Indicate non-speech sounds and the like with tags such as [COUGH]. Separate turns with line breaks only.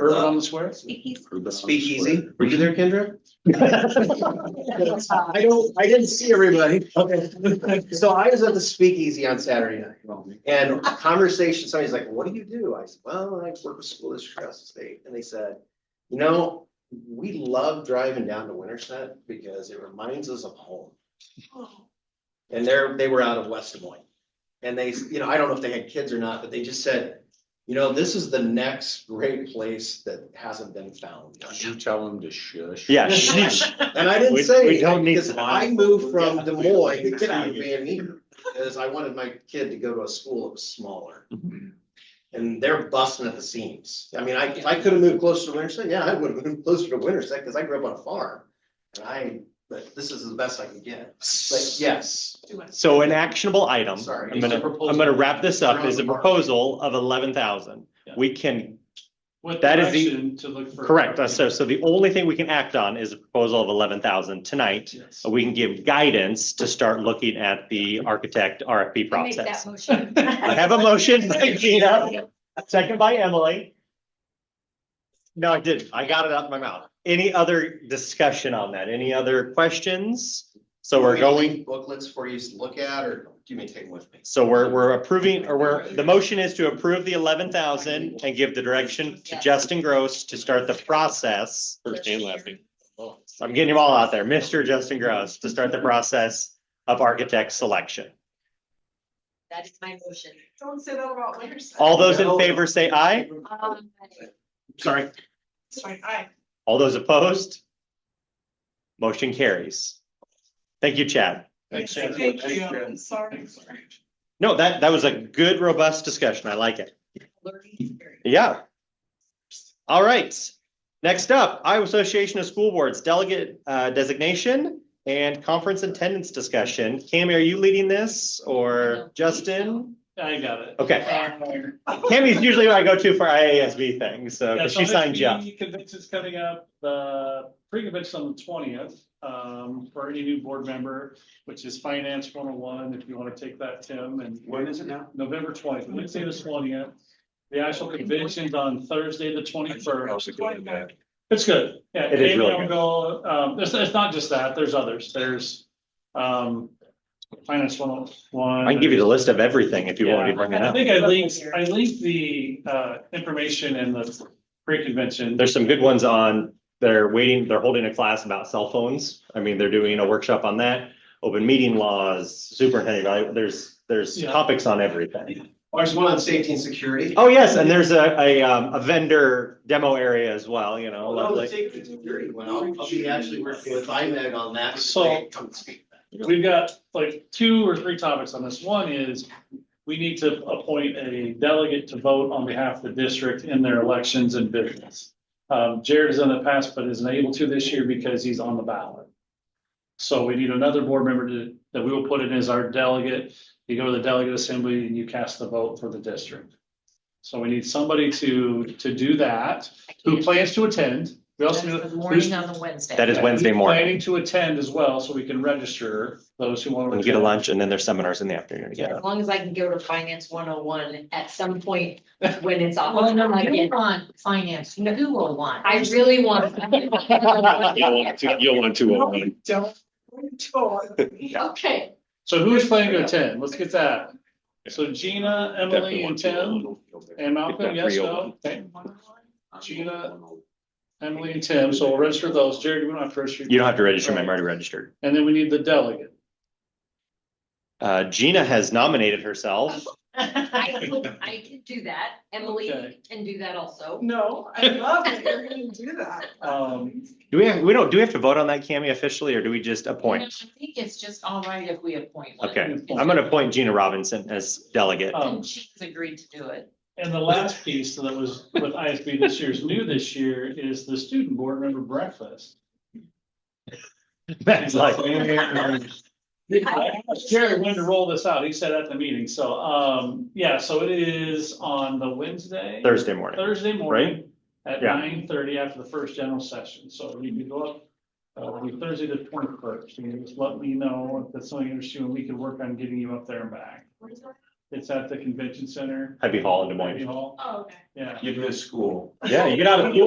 Urban on the Square?
The speakeasy.
Were you there, Kendra?
I don't, I didn't see everybody. Okay. So I was at the speakeasy on Saturday night and conversation, somebody's like, what do you do? I said, well, I work with school district across the state. And they said, you know, we love driving down to Winterset because it reminds us of home. And they're, they were out of West Des Moines. And they, you know, I don't know if they had kids or not, but they just said, you know, this is the next great place that hasn't been found.
Did you tell him to shush?
Yeah, sheesh.
And I didn't
We-
say,
we don't
anything,
need
because
to-
I moved from
Yeah.
Des Moines to
Get out of here.
Van Eater, because I wanted my kid to go to a school that was smaller.
Mhm.
And they're busting at the seams. I mean, I, if I could have moved closer to Winterset, yeah, I would have moved closer to Winterset, because I grew up on a farm. And I, but this is the best I could get. But yes,
So an actionable item,
Sorry.
I'm gonna,
Proposal.
I'm gonna wrap this up, is a
Around the mark.
proposal of eleven thousand.
Yeah.
We can,
What
That is the-
direction to look for?
correct, uh, so, so the only thing we can act on is a proposal of eleven thousand tonight.
Yes.
We can give guidance to start looking at the architect RFP
I'll Make that
process.
motion.
[LAUGHS] I
[LAUGHS]
have a motion by Gina, second by Emily. No, I didn't. I got it out of my mouth. Any other discussion on that? Any other questions? So we're going,
Booklets for you to look at, or do you may take them with me?
so we're, we're approving, or we're, the motion is to approve the eleven thousand and give the direction to Justin Gross to start the process.
First and last name.
I'm getting them all out there. Mr. Justin Gross to start the process of architect selection.
That is my motion.
Don't say that about Winterset.
All those in favor say aye.
Um,
Sorry.
It's fine, aye.
All those opposed? Motion carries. Thank you, Chad.
Thanks.
Thank you, I'm sorry, sorry.
No, that, that was a good, robust discussion. I like it.
learning experience.
Yeah. All right. Next up, Iowa Association of School Boards Delegate uh, Designation and Conference Attendance Discussion. Cami, are you leading this or Justin?
I got it.
Okay,
Um,
Cami's usually who I go to for IASB things, so 'cause
yeah, so
she signed you up.
NXP Convention's coming up, the pre-convention on the twentieth, um, for any new board member, which is Finance one oh one, if you want to take that, Tim, and
When is it now?
November twentieth, Wednesday the twentieth. The actual convention's on Thursday, the twenty-first. It's good. Yeah,
It is
Amy
really good.
Elgo, um, it's, it's not just that, there's others, there's, um, finance one oh one.
I can give you the list of everything if you want me to bring it
I
up.
think I linked, I linked the, uh, information in the pre-convention.
There's some good ones on, they're waiting, they're holding a class about cell phones. I mean, they're doing a workshop on that, open meeting laws, superintendent, evalu- there's, there's
Yeah.
topics on everything.
Oh, There's one on safety and security.
Oh, yes, and there's a, a, um, a vendor demo area as well, you know,
Well, the
lovely.
Oh, safety and security one, I'll, I'll be actually working with IMAG on that. because
So-
they Come and speak.
We've got like two or three topics on this. One is we need to appoint a delegate to vote on behalf of the district in their elections and business. Um, Jared has done in the past, but isn't able to this year because he's on the ballot. So we need another board member to, that we will put in as our delegate. You go to the delegate assembly and you cast the vote for the district. So we need somebody to, to do that,
I
who
can't.
plans to attend. We
That's
also need
the
who's-
Morning on the Wednesday.
That is Wednesday
who's
morning.
Planning to attend as well, so we can register those who want to.
And get a lunch and then there's seminars in the afternoon again.
As long as I can go to finance one oh one at some point when it's off.
Well, no, you
Again,
want finance, oh who will want?
I really want.
[LAUGHS]
You'll want
No, you Don't. Don't.
Okay,
So who is planning to attend? Let's get that. So Gina, Emily and Tim and Malcolm, yes, no? Okay. Gina, Emily and Tim, so we'll register those. Jared, you don't have to register.
You don't have to register, ma'am, I'm already registered.
And then we need the delegate.
Uh, Gina has nominated herself.
I can, I can do that. Emily
Okay.
can do that also.
No, I love that you're gonna do that.
Um,
Do we, have we don't, do we have to vote on that, Cami, officially, or do we just appoint?
I think it's just all right if we appoint one.
Okay, I'm gonna appoint Gina Robinson as delegate.
Oh.
um,
And she's agreed to do it.
and the last piece that was with ISB this year's new this year is the student board member breakfast.
[LAUGHS] That's like,
I asked Uh, Jared when to roll this out. He said at the meeting. So, um, yeah, so it is on the Wednesday.
Thursday morning.
Thursday morning at
Yeah.
nine thirty after the first general session, so you can go up. Uh, it'll be Thursday the twenty
Oh,
first, you can just let me know if that's something you're interested in, we can work on getting you up there and back. It's at the convention center.
Happy Hall in Des Moines.
Happy Hall,
Oh, okay.
yeah.
You miss school.
Yeah, you get out of, you